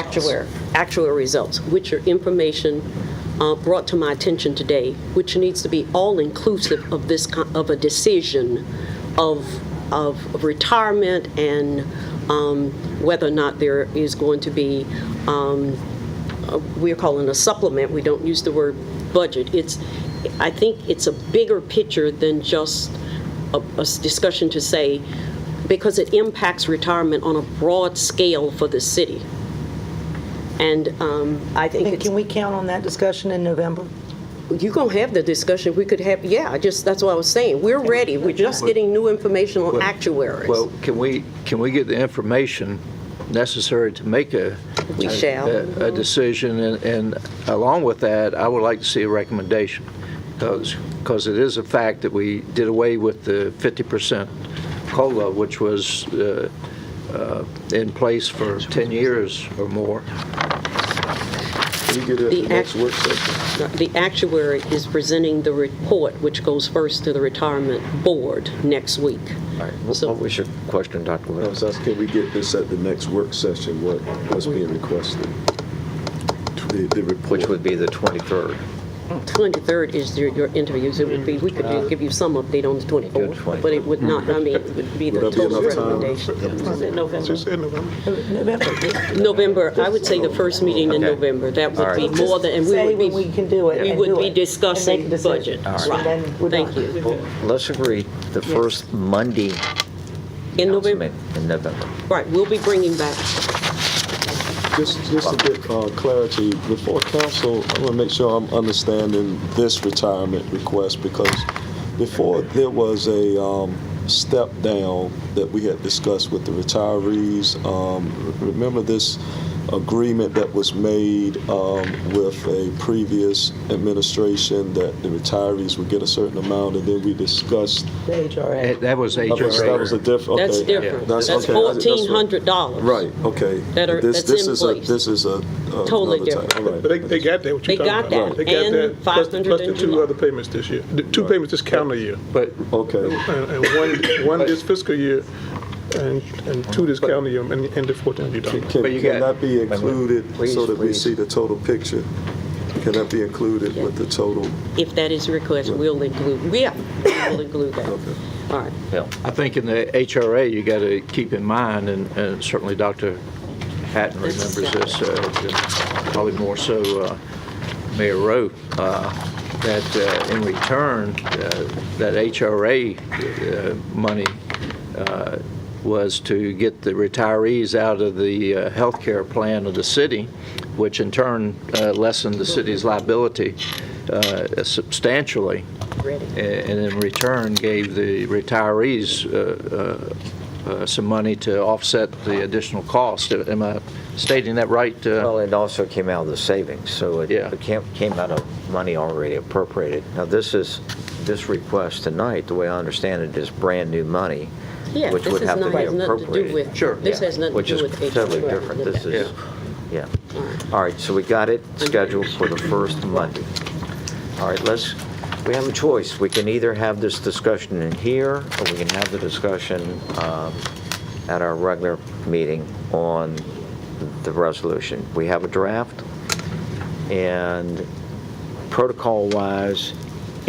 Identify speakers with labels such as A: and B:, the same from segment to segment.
A: actuary, actuary results, which are information uh, brought to my attention today, which needs to be all-inclusive of this, co- of a decision of, of retirement and um, whether or not there is going to be um, we're calling a supplement, we don't use the word budget. It's, I think it's a bigger picture than just a, a s- discussion to say, because it impacts retirement on a broad scale for the city. And um, I think
B: And
A: it's,
B: can we count on that discussion in November?
A: you're going to have the discussion, we could have, yeah, I just, that's what I was saying. We're ready, we're just getting new information on actuaries.
C: Well, can we, can we get the information necessary to make a?
A: We
C: a-
A: shall.
C: A a decision, and- and along with that, I would like to see a recommendation, because it is a fact that we did away with the 50% COLA, which was uh, uh, in place for 10 years or more.
D: We get it at
A: The
D: the next
A: act-
D: work session.
A: The actuary is presenting the report, which goes first to the retirement board next week.
E: What
A: So-
E: what was your question, Dr.
D: I was
E: Williams?
D: asking, can we get this at the next work session, what, what's being requested? The, the report.
E: Which would be the 23rd,
A: 23rd is your, your interviews, it would be, we could do- give you some update on the 24th, but it would not, I mean, it would be the
D: Would that be
A: total
D: enough time?
A: recommendation.
B: November.
A: November, I would say the first meeting in
E: Okay.
A: November, that would
E: All
A: be
E: right.
A: more than, and
B: Say
A: we
B: when
A: would
B: we
A: be,
B: can do it
A: we
B: and
A: would
B: do
A: be
B: it, and make a
A: discussing budget.
B: decision. And
A: Right.
B: then we're
A: Thank
B: done.
A: you.
E: let's agree, the first Monday
A: In November,
E: announcement in November.
A: right, we'll be bringing back,
D: Just, just to get uh, clarity, before council, I want to make sure I'm understanding this retirement request, because before, there was a um, step down that we had discussed with the retirees. Um, Remember this agreement that was made um, with a previous administration, that the retirees would get a certain amount, and then we discussed,
B: The HRA.
C: That that was
D: that was that was a
C: HRA.
D: different, okay.
A: that's different, that's
D: okay, I- that's right.
A: $1,400.
D: Right, okay.
A: That are-
D: This-
A: that's
D: this
A: in
D: is a-
A: place.
D: This is a.
A: Totally different.
F: But they, they got that, what
A: They
F: you're talking
A: got
F: about.
A: that, and
F: plus-
A: 500
F: Plus the
A: and
F: two
A: July.
F: other payments this year, the two payments this calendar year,
C: But
D: Okay.
F: and and one, one this fiscal year, and, and two this calendar year, and, and the fourteen you
D: Can,
F: don't.
D: can
C: But you
D: can
C: got-
D: that be
C: wait, wait.
D: included so
C: Please,
D: that we
C: please.
D: see the total picture? Can that be included with the total?
A: If that is requested, we'll include, yeah, we'll include that. All right.
E: Yeah.
C: I think in the HRA, you got to keep in mind, and- and certainly Dr. Hatton remembers this, uh, probably more so uh, Mayor Rowe, uh, that uh, in return, uh, that HRA uh, money uh, was to get the retirees out of the uh, healthcare plan of the city, which in turn uh, lessened the city's liability uh, substantially and in return gave the retirees uh, uh, uh, some money to offset the additional cost. Am I stating that right?
E: Well,
C: Uh,
E: it also came out of the savings, so it-
C: Yeah.
E: it came came out of money already appropriated. Now, this is, this request tonight, the way I understand it, is brand-new money,
A: Yeah,
E: which
A: this
E: would
A: is
E: have to
A: not-
E: be
A: has nothing to do
E: appropriated.
A: with- Sure. this
E: Yeah,
A: has nothing to
E: which
A: do
E: is
A: with H R A.
E: Totally different, this
A: Yeah.
E: is, yeah. All right, so we got it scheduled for the first Monday. All right, let's, we have a choice. We can either have this discussion in here, or we can have the discussion um, at our regular meeting on the resolution. We have a draft, and protocol-wise,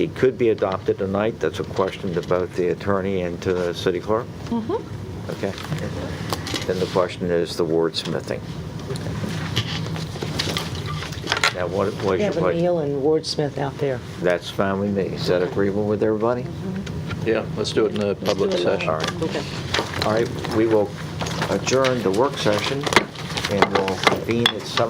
E: it could be adopted tonight. That's a question to both the attorney and to the city clerk.
C: Mm-hmm.
E: Okay. Then the question is the wordsmithing. Now, what was your
B: Have a
E: question?
B: meal and Wordsmith out there.
E: That's fine with me. Is that agreeable with everybody?
C: Yeah, let's do it in the public session.
E: All right.
A: Okay.
E: All right, we will adjourn the work session, and we'll convene at 7:00.